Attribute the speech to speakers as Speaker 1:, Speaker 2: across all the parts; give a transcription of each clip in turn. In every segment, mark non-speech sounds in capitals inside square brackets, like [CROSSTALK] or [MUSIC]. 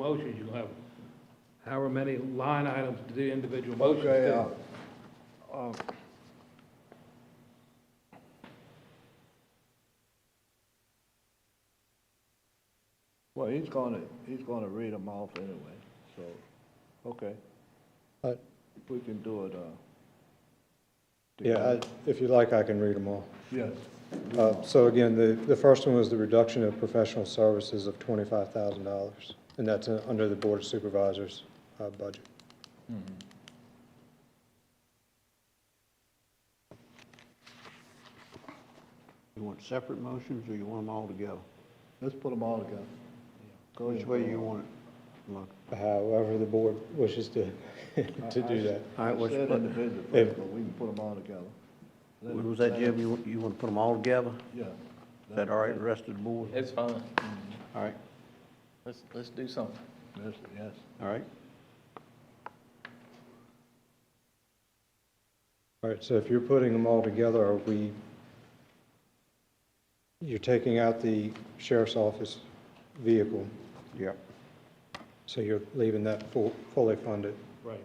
Speaker 1: motions, you'll have however many line items to do individual motions
Speaker 2: Okay, uh,
Speaker 1: to.
Speaker 2: uh, Well, he's gonna, he's gonna read them off anyway, so, okay,
Speaker 3: I-
Speaker 2: we can do it, uh.
Speaker 3: Yeah, I- if you like, I can read them all.
Speaker 2: Yes.
Speaker 3: Uh, So again, the, the first one was the reduction of professional services of $25,000, and that's uh, under the Board of Supervisors uh, budget.
Speaker 4: You want separate motions, or you want them all together?
Speaker 2: Let's put them all together. Go
Speaker 4: Which
Speaker 2: ahead.
Speaker 4: way you want it? Look,
Speaker 3: However, the board wishes to, [LAUGHS] to do that.
Speaker 4: all right,
Speaker 2: I
Speaker 4: what's,
Speaker 2: Said
Speaker 4: what,
Speaker 2: individual
Speaker 3: if-
Speaker 2: first, but we can put them all together,
Speaker 4: what was that, Jim? You, want- you want to put them all together?
Speaker 2: yeah.
Speaker 4: Is that all right, the rest of the board?
Speaker 5: It's fine.
Speaker 4: All right,
Speaker 5: Let's, let's do something.
Speaker 2: Yes, yes.
Speaker 4: all right.
Speaker 3: All right, so if you're putting them all together, are we, you're taking out the sheriff's office vehicle,
Speaker 4: Yep.
Speaker 3: so you're leaving that full, fully funded.
Speaker 1: Right.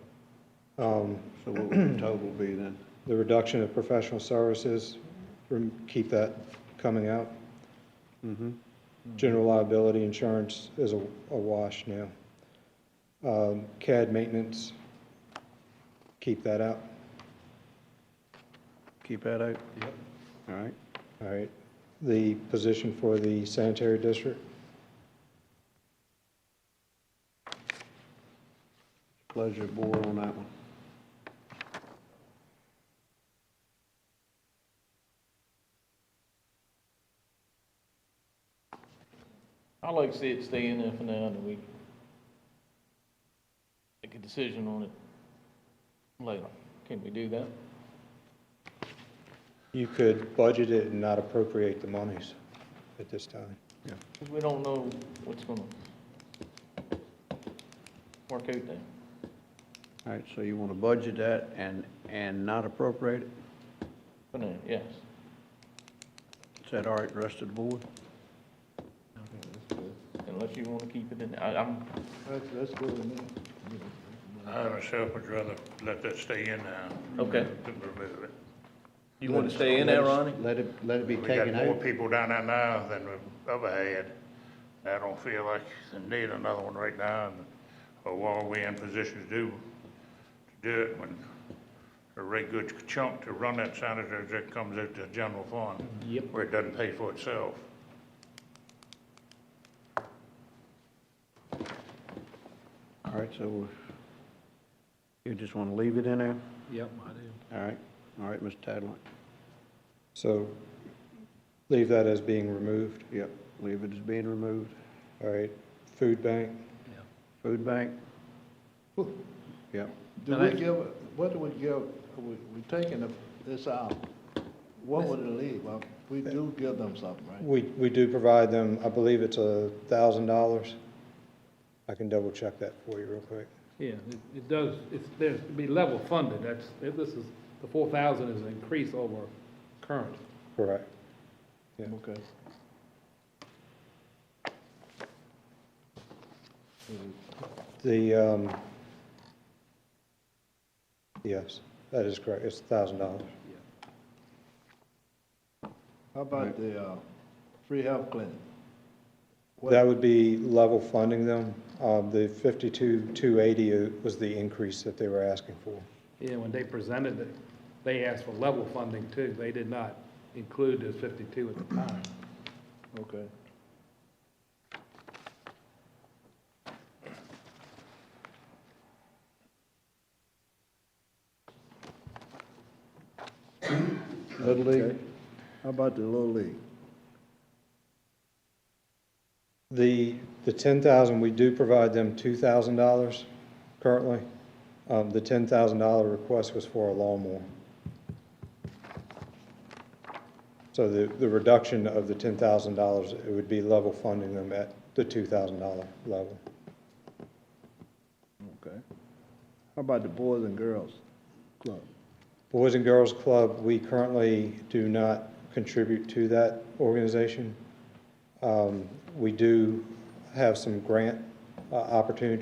Speaker 3: Um,
Speaker 4: So what would the total be then?
Speaker 3: The reduction of professional services, rem- keep that coming out.
Speaker 4: Mm-hmm.
Speaker 3: General liability insurance is a a wash now. Um, CAD maintenance, keep that out.
Speaker 4: Keep that out? Yep. All right,
Speaker 3: All right. The position for the sanitary district,
Speaker 4: pleasure of board on that one.
Speaker 5: I like to see it stay in there for now, and we make a decision on it later. Can we do that?
Speaker 3: you could budget it and not appropriate the monies at this time.
Speaker 5: Because we don't know what's gonna work out there.
Speaker 4: All right, so you want to budget that and, and not appropriate it?
Speaker 5: For now, yes.
Speaker 4: Is that all right, rest of the board?
Speaker 5: Unless you wanna keep it in, I, I'm,
Speaker 2: Let's, let's go to that.
Speaker 6: I myself would rather let that stay in now.
Speaker 5: Okay.
Speaker 6: Than remove it.
Speaker 5: you wanna stay in there, Ronnie?
Speaker 4: Let it, let it be
Speaker 6: We got
Speaker 4: taken
Speaker 6: more
Speaker 4: out?
Speaker 6: people down there now than we ever had. I don't feel like they need another one right now, and- or while we in position to do, to do it when a right good chunk to run that sanitary district comes out the general fund.
Speaker 1: Yep.
Speaker 6: Where it doesn't pay for itself.
Speaker 4: All right, so you just want to leave it in there?
Speaker 1: Yep, I do.
Speaker 4: All right, all right, Mr. Tadlock?
Speaker 3: So leave that as being removed.
Speaker 4: Yep, leave it as being removed.
Speaker 3: All right. Food bank,
Speaker 4: Food bank? Yep,
Speaker 2: Do
Speaker 1: And
Speaker 2: we
Speaker 1: I-
Speaker 2: give, what do we give, we, we taking the- this out, what would it leave? Well, We do give them something, right?
Speaker 3: we, we do provide them, I believe it's a thousand dollars. I can double check that for you real quick.
Speaker 1: Yeah, it, it does, it's, there's, to be level funded, that's, it- this is, the four thousand is an increase over current.
Speaker 3: Correct.
Speaker 2: Okay.
Speaker 3: The, um, yes, that is correct, it's thousand dollars.
Speaker 2: How about the, uh, free health clinic? What-
Speaker 3: That would be level funding them, um, the fifty-two, two eighty was the increase that they were asking for.
Speaker 1: Yeah, when they presented it, they asked for level funding too, they did not include those fifty-two at the time.
Speaker 2: Okay. Little League? How about the Little League?
Speaker 3: The, the ten thousand, we do provide them two thousand dollars currently. Um, the ten thousand dollar request was for a lawnmower. So the, the reduction of the ten thousand dollars, it would be level funding them at the two thousand dollar level.
Speaker 2: Okay. How about the Boys and Girls Club?
Speaker 3: Boys and Girls Club, we currently do not contribute to that organization. Um, We do have some grant uh, opportunity